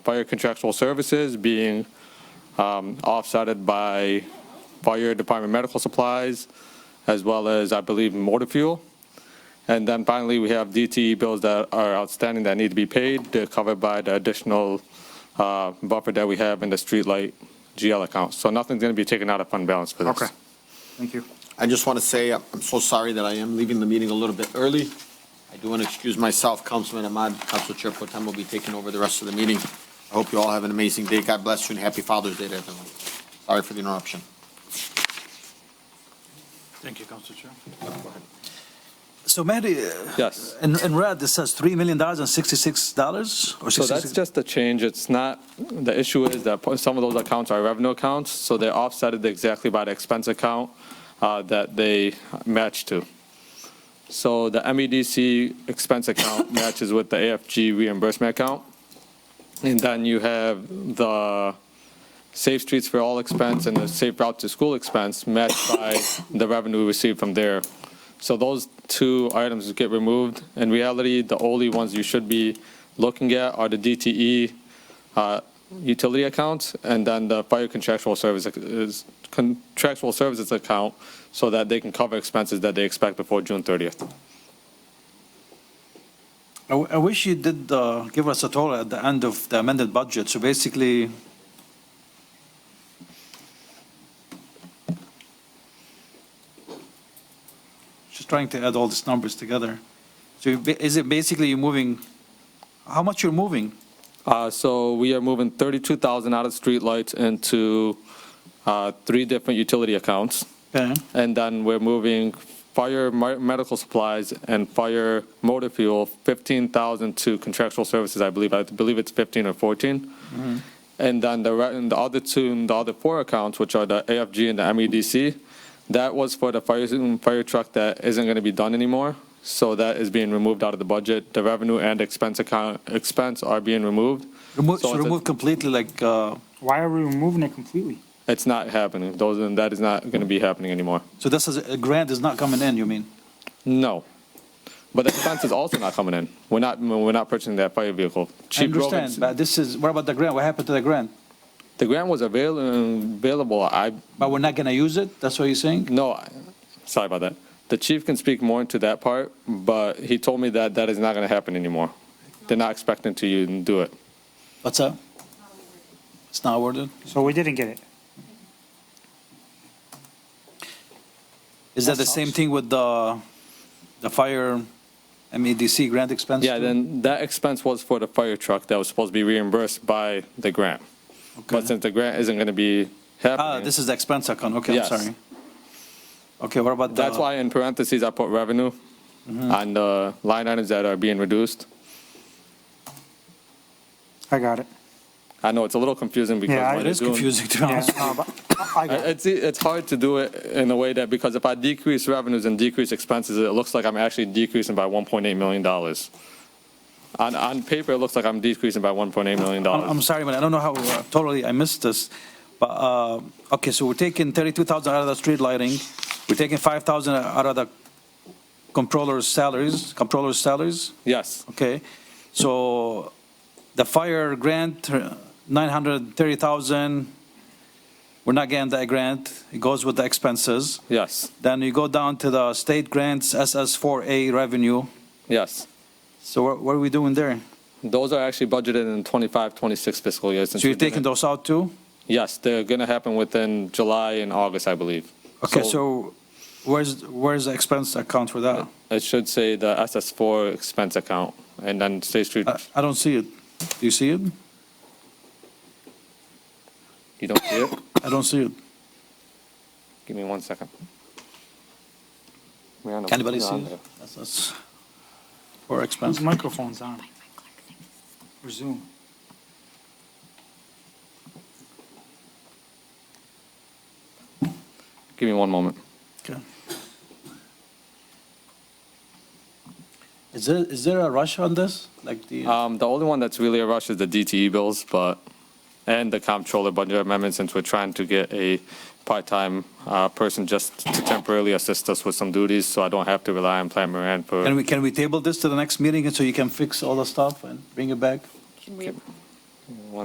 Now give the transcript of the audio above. fire contractual services being um, offsetted by fire department medical supplies, as well as, I believe, motor fuel. And then finally, we have DTE bills that are outstanding that need to be paid. They're covered by the additional uh, buffer that we have in the streetlight GL account. So nothing's going to be taken out of fund balance for this. Okay. Thank you. I just want to say, I'm I'm so sorry that I am leaving the meeting a little bit early. I do want to excuse myself, Councilman Ahmad, Council Chair Potem will be taking over the rest of the meeting. I hope you all have an amazing day. God bless you and happy Father's Day to everyone. Sorry for the interruption. Thank you, Council Chair. So Mehdi, Yes. in, in red, it says $3 million and 66 dollars or So that's 66? just a change. It's not, the issue is that some of those accounts are revenue accounts, so they're offsetted exactly by the expense account uh, that they match to. So the MEDC expense account matches with the AFG reimbursement account. And then you have the Safe Streets for All expense and the Safe Route to School expense matched by the revenue received from there. So those two items get removed. In reality, the only ones you should be looking at are the DTE uh, utility accounts and then the fire contractual service is contractual services account so that they can cover expenses that they expect before June 30th. I w- I wish you did uh, give us a total at the end of the amended budget. So basically, just trying to add all these numbers together. So you ba- is it basically you're moving, how much you're moving? Uh, So we are moving 32,000 out of streetlights into uh, three different utility accounts. Okay. And then we're moving fire mi- medical supplies and fire motor fuel, 15,000 to contractual services, I believe. I believe it's 15 or 14. And then the, re- and the other two, the other four accounts, which are the AFG and the MEDC, that was for the fire, fire truck that isn't going to be done anymore. So that is being removed out of the budget. The revenue and expense account, expense are being removed. Remove, So so it's a- remove completely like, uh, Why are we removing it completely? It's not happening. Those, and that is not going to be happening anymore. so this is, a grant is not coming in, you mean? No. But the expense is also not coming in. We're not, we're not purchasing that fire vehicle. I Chief Grogan- understand, but this is, what about the grant? What happened to the grant? The grant was avail- available, I, But we're not going to use it? That's what you're saying? no, I- sorry about that. The chief can speak more into that part, but he told me that that is not going to happen anymore. They're not expecting to you do it. What's up? It's not awarded? So we didn't get it. Is that the same thing with the, the fire MEDC grant expense? Yeah, too? then that expense was for the fire truck that was supposed to be reimbursed by the grant. But Okay. since the grant isn't going to be Ah, happening, this is the expense account, okay, I'm Yes. sorry. Okay, what about the? that's why in parentheses I put revenue Mm-hmm. on the line items that are being reduced. I got it. I know it's a little confusing because Yeah, what they're It is it doing- confusing to be Yeah, honest. uh, but I got I- it. It's it's hard to do it in a way that because if I decrease revenues and decrease expenses, it looks like I'm actually decreasing by 1.8 million dollars. On on paper, it looks like I'm decreasing by 1.8 million I'm, I'm dollars. sorry, man, I don't know how, uh, totally, I missed this. But, uh, okay, so we're taking thirty-two thousand out of the street lighting, we're taking five thousand out of the controller's salaries, controller's salaries, Yes, okay? So the fire grant, uh, nine hundred thirty thousand, we're not getting that grant, it goes with the expenses. yes, Then you go down to the state grants, SS4A revenue. yes. So what, what are we doing there? Those are actually budgeted in 25, 26 fiscal years. So you're taking those out too? Yes, they're going to happen within July and August, I believe. Okay, so where's, where's the expense account for that? It should say the SS4 expense account and then State Street, I, I don't see it. Do you see it? you don't see it? I don't see it. Give me one second. Can anybody see it? That's- that's For Those expense. microphone's on. Resume. Give me one moment. Okay. Is there, is there a rush on this? Like the, Um, the only one that's really a rush is the DTE bills, but, and the comptroller budget amendment, since we're trying to get a part-time, uh, person just to temporarily assist us with some duties, so I don't have to rely on Plant Moran can for, we, can we table this to the next meeting so you can fix all the stuff and bring it back? Can we,